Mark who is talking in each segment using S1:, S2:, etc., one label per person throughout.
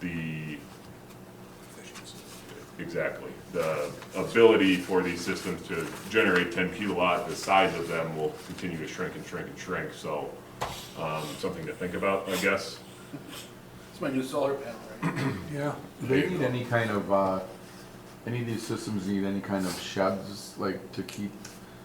S1: the, exactly, the ability for these systems to generate ten kilowatt, the size of them will continue to shrink and shrink and shrink, so, um, something to think about, I guess.
S2: It's my new solar panel, right?
S3: Yeah.
S4: They need any kind of, uh, any of these systems need any kind of sheds, like to keep,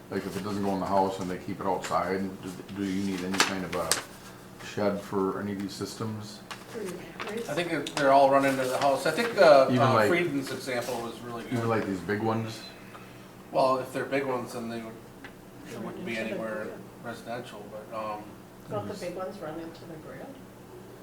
S4: like if it doesn't go in the house and they keep it outside, do- do you need any kind of a shed for any of these systems?
S5: For your batteries?
S2: I think they're- they're all running to the house. I think uh,
S4: Even
S2: uh,
S4: like-
S2: Frieden's example was really
S4: Even
S2: good.
S4: like these big ones?
S2: Well, if they're big ones, then they would, they
S5: Run
S2: wouldn't be
S5: into the
S2: anywhere
S5: grid.
S2: residential, but, um,
S5: Don't the big ones run into the grid?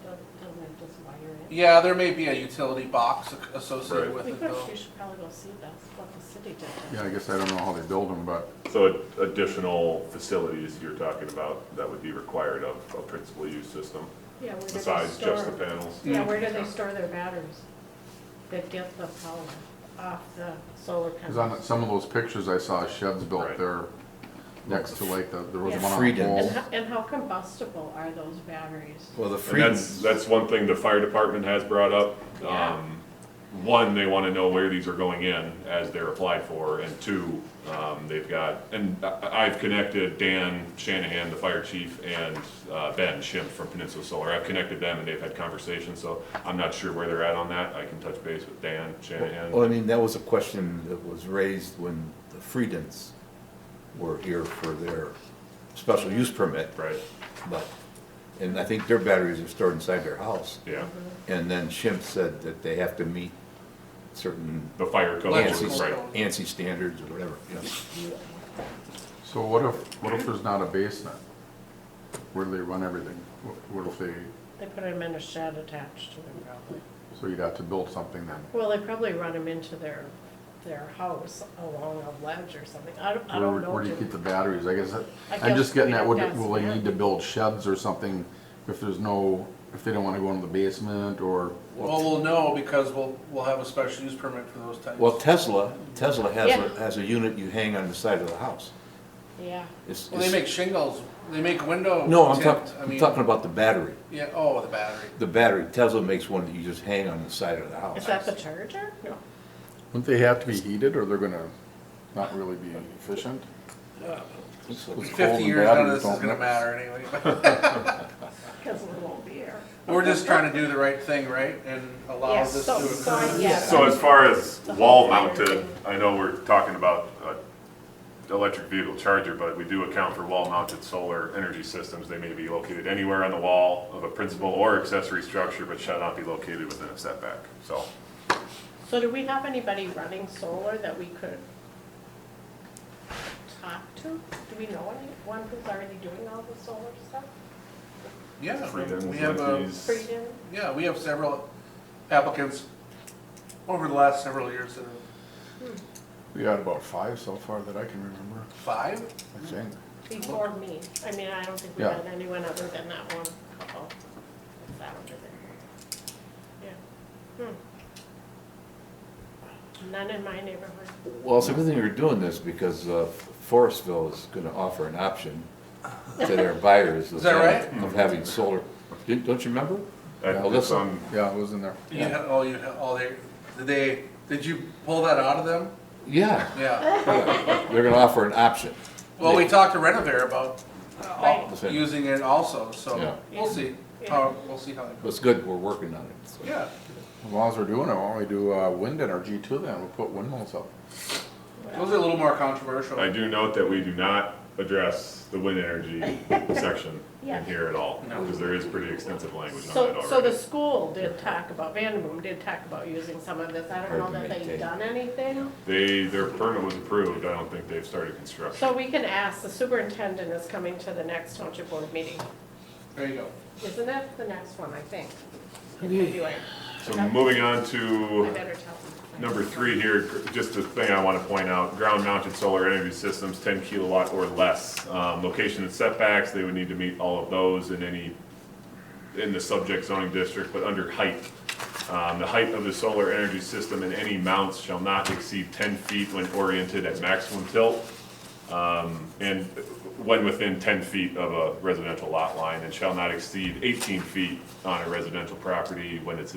S5: Don't, don't they just wire in?
S2: yeah, there may be a utility box ac- associated
S1: Right.
S2: with
S5: We
S2: it
S5: could,
S2: though.
S5: we should probably go see that's what the city did. to
S4: Yeah, I guess I don't know how they build them, but
S1: So additional facilities you're talking about that would be required of a principal use system,
S5: Yeah, where do they
S1: besides just the
S5: store-
S1: panels?
S5: Yeah,
S2: Mm.
S5: where do they store their batteries that get the power off the solar
S4: Cause on
S5: panels?
S4: some of those pictures I saw sheds built
S1: Right.
S4: there next to like the, there was
S5: Yeah.
S4: one on the
S3: Freedom.
S4: wall.
S5: And how, and how combustible are those batteries?
S3: Well, the
S1: And that's,
S3: Freedons,
S1: that's one thing the fire department has brought up.
S5: Yeah.
S1: Um, One, they wanna know where these are going in as they're applied for, and two, um, they've got, and I, I've connected Dan Shanahan, the fire chief, and, uh, Ben Schimpf from Peninsula Solar, I've connected them and they've had conversations, so I'm not sure where they're at on that, I can touch base with Dan Shanahan.
S6: Well, I mean, that was a question that was raised when the Freedons were here for their special use permit,
S1: Right,
S6: but, and I think their batteries are stored inside their house.
S1: yeah,
S6: And then Schimpf said that they have to meet certain
S1: the fire code,
S6: ANSI,
S2: Electrical
S1: Oh, right,
S2: code.
S6: ANSI standards or whatever, yeah.
S4: So what if, what if there's not a basement? Where do they run everything? What- What if they,
S5: They put them in a shed attached to them probably.
S4: so you'd have to build something then?
S5: Well, they probably run them into their, their house along a ledge or something. I don't, I
S4: Where,
S5: don't know.
S4: where do you
S5: dude.
S4: keep the batteries? I guess, that-
S5: I
S4: I'm
S5: guess
S4: just getting at, would,
S5: we'd have to
S4: will they
S5: ask
S4: need to build sheds or something if there's no, if they don't wanna go into the basement or?
S2: Well, we'll know because we'll, we'll have a special use permit for those types.
S6: Well, Tesla, Tesla has,
S5: Yeah.
S6: a- has a unit you hang on the side of the house.
S5: Yeah.
S6: It's-
S2: Well, they
S6: it's-
S2: make shingles, they make window.
S6: No, I'm
S2: tint.
S6: talking,
S2: I
S6: I'm
S2: mean,
S6: talking about the battery,
S2: Yeah, oh, the battery.
S6: the battery, Tesla makes one that you just hang on the side of the house.
S5: Is that the charger?
S4: Wouldn't they have to be heated or they're gonna not really be efficient?
S6: It's like-
S4: It's cold
S2: Fifty
S4: and
S2: years, none of
S4: batteries
S2: this is
S4: don't
S2: gonna
S4: mix.
S2: matter anyway.
S5: Because it won't be air.
S2: We're just trying to do the right thing, right, and allow
S5: Yeah,
S2: this to
S5: so-
S2: occur.
S5: so I- yeah.
S1: So as far as wall mounted, I know we're talking about uh, electric vehicle charger, but we do account for wall mounted solar energy systems. They may be located anywhere on the wall of a principal or accessory structure, but shall not be located within a setback, so.
S5: So do we have anybody running solar that we could talk to? Do we know anyone who's already doing all the solar stuff?
S2: Yeah,
S1: Freedoms,
S2: we have, uh,
S1: entities.
S5: Freedom?
S2: yeah, we have several applicants over the last several years, that are
S4: We got about five so far that I can remember,
S2: five,
S5: Mm.
S4: I think.
S5: Before me. I mean, I don't think we
S4: Yeah.
S5: had anyone other than that one couple. that's out there. Yeah. Hmm. None in my neighborhood.
S6: Well, it's a good thing you're doing this because uh, Forestville is going to offer an option to their buyers.
S2: Is that right?
S6: Of having solar. Didn't- Don't you remember?
S1: I-
S6: Well, this one-
S4: Yeah, it was in there.
S2: you had, oh, you had, oh, they, did they, did you pull that out of them?
S6: Yeah,
S2: Yeah,
S6: they're going to offer an option.
S2: well, we talked to Renovare about uh,
S6: Right.
S2: using it also, so
S6: Yeah.
S2: we'll see,
S5: Yeah.
S2: how, we'll see how it goes.
S6: It's good, we're working on it. so.
S2: Yeah,
S4: As long as we're doing it, why don't we do, uh, wind energy too then? We'll put windmills up.
S2: those are a little more controversial.
S1: I do note that we do not address the wind energy section
S5: Yeah.
S1: in here at all, because there is pretty extensive language on that
S5: So, so the
S1: already.
S5: school did talk about, Vanderboom did talk about using some of this. I don't know that they've
S6: Argumentate.
S5: done anything.
S1: They, their permit was approved, I don't think they've started construction.
S5: So we can ask, the superintendent is coming to the next township board meeting.
S2: There you go.
S5: Isn't that the next one, I think? Anyway,
S1: So moving on
S5: I
S1: to
S5: better tell them.
S1: Number three here, gr- just a thing I want to point out, ground-mounted solar energy systems, 10 kilowatt or less. Um, Location and setbacks, they would need to meet all of those in any, in the subject zoning district, but under height. Um, The height of the solar energy system in any mounts shall not exceed 10 feet when oriented at maximum tilt, um, and when within 10 feet of a residential lot line, and shall not exceed 18 feet on a residential property when it's